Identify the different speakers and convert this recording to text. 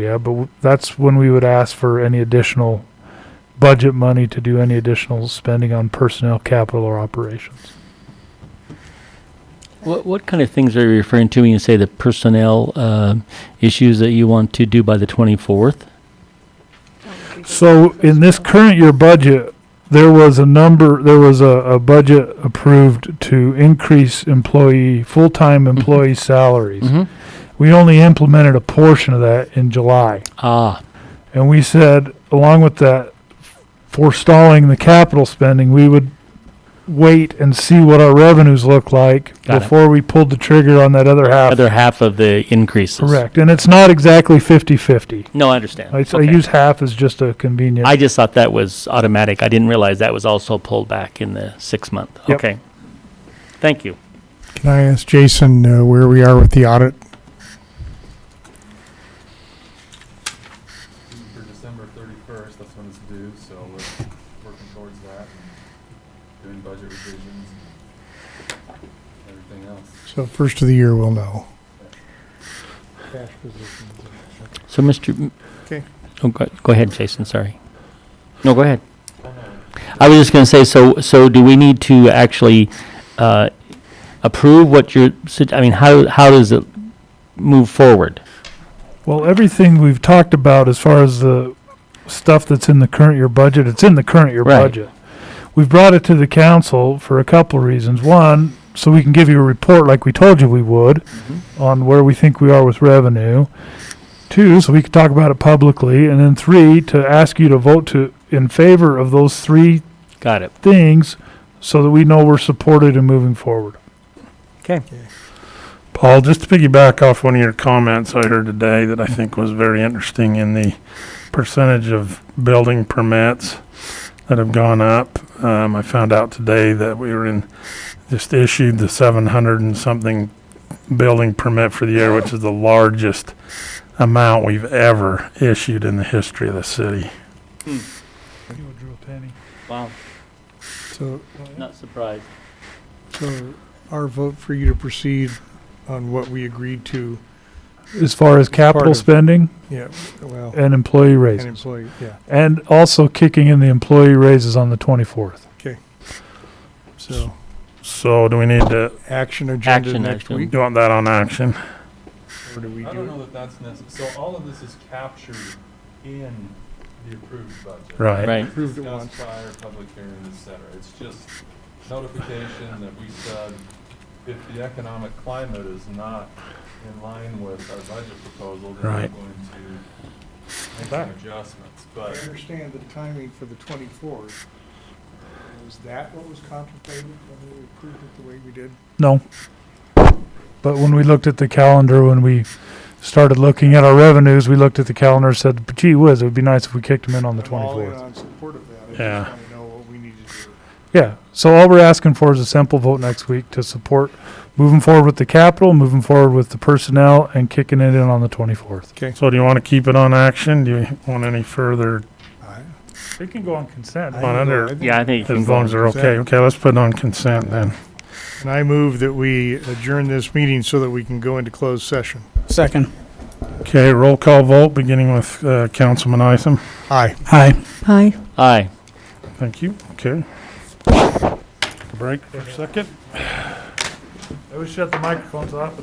Speaker 1: Yeah, but w- that's when we would ask for any additional budget money to do any additional spending on personnel, capital, or operations.
Speaker 2: What, what kind of things are you referring to when you say the personnel uh, issues that you want to do by the 24th?
Speaker 1: So in this current year budget, there was a number, there was a, a budget approved to increase employee, full-time employee salaries.
Speaker 2: Mm-hmm.
Speaker 1: We only implemented a portion of that in July.
Speaker 2: Ah,
Speaker 1: And we said, along with that, forestalling the capital spending, we would wait and see what our revenues look like
Speaker 2: Got it.
Speaker 1: before we pulled the trigger on that other half.
Speaker 2: other half of the increases.
Speaker 1: Correct. And it's not exactly 50/50.
Speaker 2: No, I understand.
Speaker 1: I, I
Speaker 2: Okay.
Speaker 1: use half as just a convenient.
Speaker 2: I just thought that was automatic. I didn't realize that was also pulled back in the six month.
Speaker 1: Yep.
Speaker 2: Okay. Thank you.
Speaker 3: Can I ask Jason uh, where we are with the audit?
Speaker 4: for December thirty-first, that's when it's due, so we're working towards that and doing budget revisions and everything else.
Speaker 3: So first of the year, we'll know.
Speaker 2: So, Mr. M-
Speaker 3: Okay.
Speaker 2: Oh, go, go ahead, Jason. Sorry. No, go ahead.
Speaker 4: Oh, no,
Speaker 2: I was just going to say, so, so do we need to actually uh, approve what you're, sug- I mean, how, how does it move forward?
Speaker 1: Well, everything we've talked about as far as the stuff that's in the current year budget, it's in the current year
Speaker 2: Right.
Speaker 1: budget. We've brought it to the council for a couple of reasons. One, so we can give you a report like we told you we would on where we think we are with revenue. Two, so we could talk about it publicly. And then three, to ask you to vote to, in favor of those three
Speaker 2: Got it.
Speaker 1: things so that we know we're supported and moving forward.
Speaker 2: Okay.
Speaker 5: Paul, just to piggyback off one of your comments I heard today that I think was very interesting in the percentage of building permits that have gone up. Um, I found out today that we were in, just issued the seven hundred and something building permit for the year, which is the largest amount we've ever issued in the history of the city.
Speaker 1: Hmm.
Speaker 2: Wow,
Speaker 3: So,
Speaker 2: not surprised.
Speaker 3: so our vote for you to proceed on what we agreed to,
Speaker 1: As far as capital
Speaker 3: of-
Speaker 1: spending
Speaker 3: yeah, well,
Speaker 1: and employee
Speaker 3: an
Speaker 1: raises.
Speaker 3: employee, yeah.
Speaker 1: And also kicking in the employee raises on the 24th.
Speaker 3: So
Speaker 5: So do we need to,
Speaker 3: action agenda
Speaker 2: Action
Speaker 3: next
Speaker 2: item.
Speaker 3: week,
Speaker 5: you want that on action?
Speaker 3: or do we
Speaker 4: I don't know
Speaker 3: do?
Speaker 4: that that's necessary. so all of this is captured in the approved budget.
Speaker 5: Right.
Speaker 2: Right.
Speaker 3: Approved at
Speaker 4: Discussed
Speaker 3: once.
Speaker 4: prior, public hearing, et cetera, it's just notification that we said if the economic climate is not in line with our budget proposal, then we're
Speaker 5: Right.
Speaker 4: going to make some adjustments,
Speaker 3: I
Speaker 4: but.
Speaker 3: understand the timing for the twenty-fourth. Is that what was contemplated when we approved it the way we did?
Speaker 1: No. But when we looked at the calendar, when we started looking at our revenues, we looked at the calendar and said, gee whiz, it would be nice if we kicked them in on the
Speaker 3: I'm all in
Speaker 1: 24th.
Speaker 3: on support of that. I
Speaker 5: Yeah.
Speaker 3: just want to know what we need to do.
Speaker 1: Yeah. So all we're asking for is a simple vote next week to support moving forward with the capital, moving forward with the personnel, and kicking it in on the 24th.
Speaker 5: So do you want to keep it on action? Do you want any further
Speaker 3: I-
Speaker 1: It can go on consent.
Speaker 3: I
Speaker 5: Come on
Speaker 3: don't know.
Speaker 5: under.
Speaker 3: I think-
Speaker 2: Yeah, I think. you can
Speaker 5: As
Speaker 2: go
Speaker 5: long
Speaker 2: on.
Speaker 5: as they're okay.
Speaker 3: Consent.
Speaker 5: Okay, let's put it on consent then.
Speaker 3: And I move that we adjourn this meeting so that we can go into closed session.
Speaker 6: Second.
Speaker 5: Okay, roll call vote, beginning with uh, Councilman Isom.
Speaker 3: Aye.
Speaker 6: Hi.
Speaker 7: Hi.
Speaker 2: Aye.
Speaker 5: Thank you. Okay. Break for a second.
Speaker 1: I wish shut the microphones off.